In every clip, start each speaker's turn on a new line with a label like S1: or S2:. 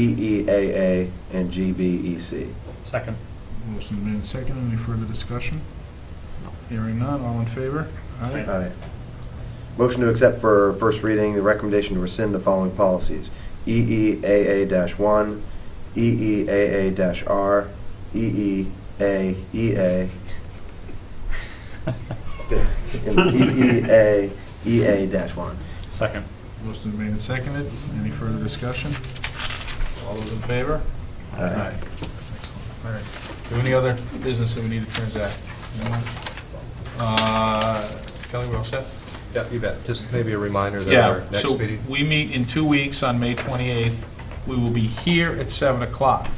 S1: E EEAA, and E GBEC.
S2: Second.
S3: Motion made and seconded. Any further discussion?
S2: No.
S3: Hearing none. All in favor?
S2: Aye.
S1: Aye. Motion to accept for first reading the recommendation to rescind the following policies. E EEAA-1, E EEAA-R, E EEAEA, E and E EEAEA-1.
S2: Second.
S3: Motion made and seconded. Any further discussion? All those in favor?
S1: Aye.
S3: Excellent. All right. Do we have any other business that we need to transact? No? Uh, Kelly, we all set?
S4: Yeah, you bet. Just maybe a reminder that
S3: Yeah,
S4: our
S3: so
S4: next meeting,
S3: we meet in two weeks on May 28th. We will be here at 7 o'clock.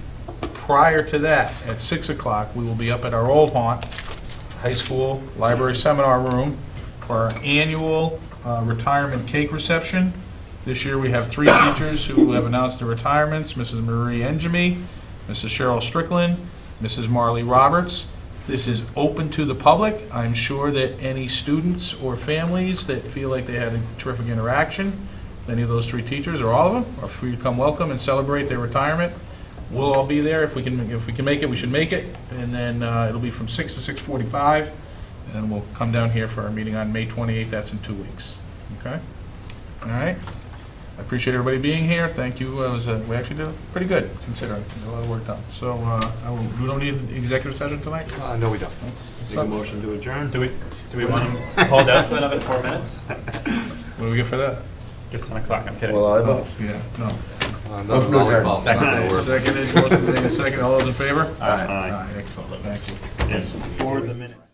S3: Prior to that, at 6 o'clock, we will be up at our old haunt, high school library seminar room, for our annual uh, retirement cake reception. This year, we have three teachers who have announced their retirements, Mrs. Marie Enjemy, Mrs. Cheryl Strickland, Mrs. Marley Roberts. This is open to the public. I'm sure that any students or families that feel like they had a terrific interaction, any of those three teachers or all of them, are free to come welcome and celebrate their retirement. We'll all be there. If we can, if we can make it, we should make it. And then uh, it'll be from 6 to 6:45, and we'll come down here for our meeting on May 28th. That's in two weeks. Okay? All right? I appreciate everybody being here. Thank you. Uh, was, uh, We actually did pretty good considering. There's A lot of work done. So uh, I will- we don't need an executive session tonight?
S4: uh, no, we don't.
S3: Make a motion.
S2: Do we, do we want to hold out for another four minutes?
S3: What do we get for that?
S2: It's 10 o'clock, I'm kidding.
S1: Well, I
S3: Oh,
S1: vote.
S3: Yeah, no.
S4: Uh,
S1: Motion
S4: Another
S1: to adjourn.
S4: volleyball. Not gonna work.
S3: Seconded, motion made and seconded. All those in favor?
S1: Aye.
S3: Aye, excellent. Thank you.
S2: For the minutes.